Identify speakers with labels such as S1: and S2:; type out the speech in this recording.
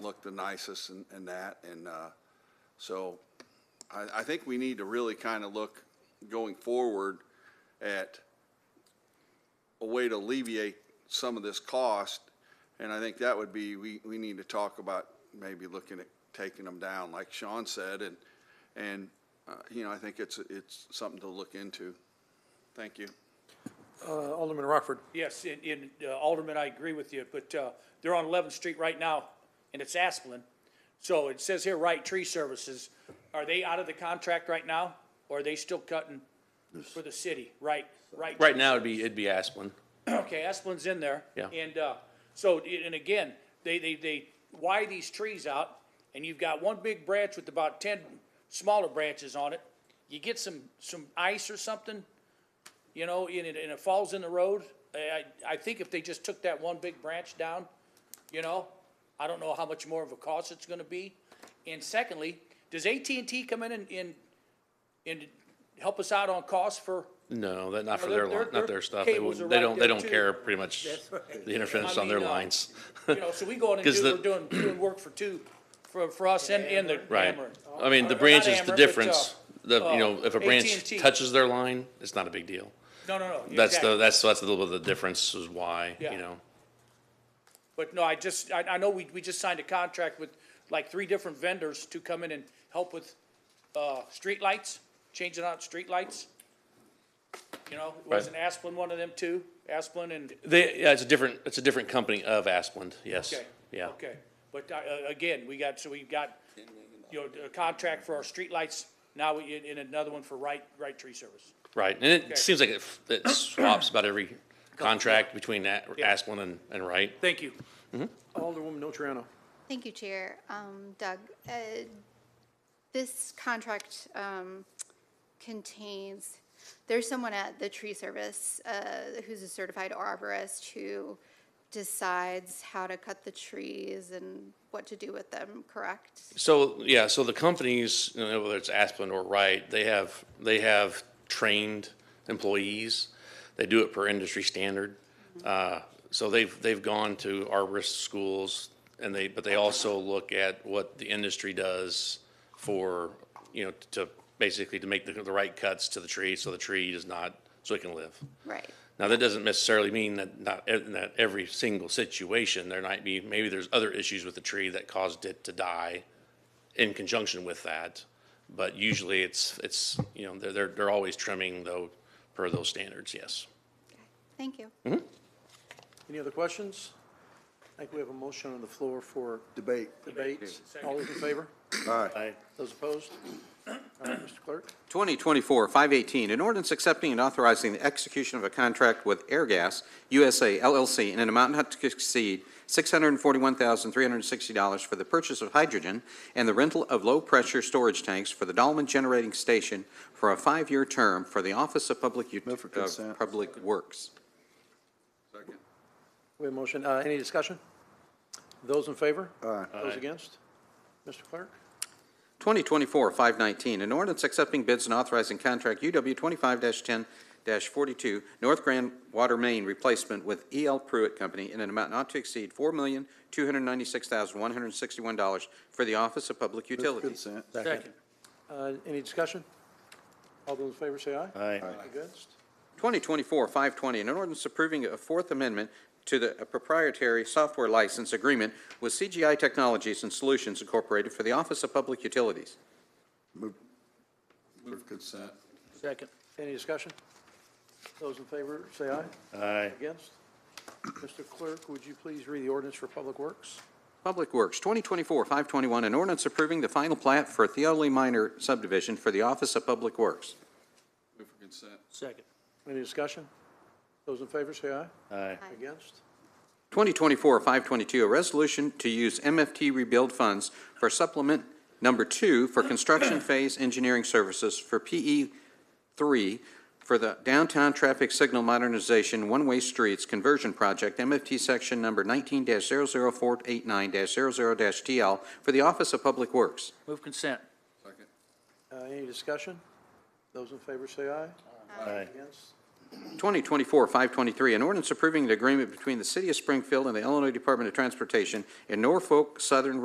S1: look the nicest and, and that, and, uh, so I, I think we need to really kind of look going forward at a way to alleviate some of this cost, and I think that would be, we, we need to talk about maybe looking at taking them down, like Sean said, and, and, uh, you know, I think it's, it's something to look into. Thank you.
S2: Uh, Alderman Rockford.
S3: Yes, and, and uh, Alderman, I agree with you, but, uh, they're on Eleventh Street right now, and it's Asplin. So it says here, Wright Tree Services, are they out of the contract right now, or are they still cutting for the city? Right, right.
S4: Right now, it'd be, it'd be Asplin.
S3: Okay, Esplin's in there.
S4: Yeah.
S3: And, uh, so, and again, they, they, they wire these trees out, and you've got one big branch with about ten smaller branches on it. You get some, some ice or something, you know, and it, and it falls in the road. I, I I think if they just took that one big branch down, you know, I don't know how much more of a cost it's gonna be. And secondly, does AT&T come in and, and, and help us out on costs for,
S4: No, that, not for
S3: No, their-
S4: their, line-
S3: their-
S4: not
S3: their
S4: their stuff. They
S3: cables
S4: wouldn't,
S3: are
S4: they
S3: right
S4: don't,
S3: there,
S4: they don't
S3: too.
S4: care pretty much the interference on their
S3: mean, uh,
S4: lines.
S3: you know, so we go in and
S4: 'Cause
S3: do,
S4: the-
S3: we're doing, doing work for two, for, for us and, and the
S4: Right.
S3: Ameren.
S4: I mean, the
S3: Or Oh, not
S4: branch is
S3: Ameren,
S4: the
S3: but,
S4: difference. The,
S3: uh,
S4: you know, if a branch
S3: AT&T.
S4: touches their line, it's not a big deal.
S3: No, no, no.
S4: That's the,
S3: exactly.
S4: that's, that's a little bit of the difference is why,
S3: Yeah.
S4: you know.
S3: But no, I just, I, I know we, we just signed a contract with like three different vendors to come in and help with, uh, streetlights, changing out streetlights. You know, wasn't Asplin one of them too? Asplin and,
S4: They, yeah, it's a different, it's a different company of Asplin, yes.
S3: okay.
S4: Yeah.
S3: Okay, but, uh, again, we got, so we've got, you know, a contract for our streetlights, now we, and another one for right, right tree service.
S4: Right. And it seems like it, f- it swaps about every contract between that, Asplin and, and Wright.
S3: Thank you.
S2: Alderwoman Notarano.
S5: Thank you, Chair. Um, Doug, uh, this contract um, contains, there's someone at the tree service uh, who's a certified arborist who decides how to cut the trees and what to do with them, correct?
S4: So, yeah, so the companies, you know, whether it's Aspen or Wright, they have, they have trained employees. They do it per industry standard. Uh, So they've, they've gone to arborist schools and they, but they also look at what the industry does for, you know, to basically to make the, the right cuts to the tree so the tree does not, so it can live.
S5: Right.
S4: Now, that doesn't necessarily mean that not, e, that every single situation, there might be, maybe there's other issues with the tree that caused it to die in conjunction with that. But usually it's, it's, you know, they're, they're, they're always trimming though, per those standards, yes.
S5: Thank you.
S2: Any other questions? I think we have a motion on the floor for
S1: Debate.
S2: debate. All those in favor?
S4: Aye.
S2: Those opposed? All right, Mr. Clerk.
S6: 2024-518, an ordinance accepting and authorizing the execution of a contract with Airgas USA LLC in an amount not to exceed $641,360 for the purchase of hydrogen and the rental of low-pressure storage tanks for the Dolman Generating Station for a five-year term for the Office of Public Ut-
S7: Move for
S6: of
S7: consent.
S6: Public Works.
S2: We have a motion. Uh, Any discussion? Those in favor? Aye. Those against? Mr. Clerk.
S6: 2024-519, an ordinance accepting bids and authorizing contract UW 25-10-42 North Grand Water Main Replacement with E.L. Pruitt Company in an amount not to exceed $4,296,161 for the Office of Public Utilities.
S7: Consent.
S2: Second. Uh, Any discussion? All those in favor say aye. Aye. Against?
S6: 2024-520, an ordinance approving a Fourth Amendment to the proprietary software license agreement with CGI Technologies and Solutions Incorporated for the Office of Public Utilities.
S7: Move for consent.
S3: Second.
S2: Any discussion? Those in favor say aye. Aye. Against? Mr. Clerk, would you please read the ordinance for Public Works?
S6: Public Works, 2024-521, an ordinance approving the final plat for Theoli Minor subdivision for the Office of Public Works.
S1: Move for consent.
S3: Second.
S2: Any discussion? Those in favor say aye. Aye. Against?
S6: 2024-522, a resolution to use MFT rebuild funds for supplement number two for construction phase engineering services for PE3 for the downtown traffic signal modernization one-way streets conversion project, MFT section number 19-00489-00-TL for the Office of Public Works.
S3: Move consent.
S2: Uh, Any discussion? Those in favor say aye. Aye. Against?
S6: 2024-523, an ordinance approving an agreement between the City of Springfield and the Illinois Department of Transportation and Norfolk Southern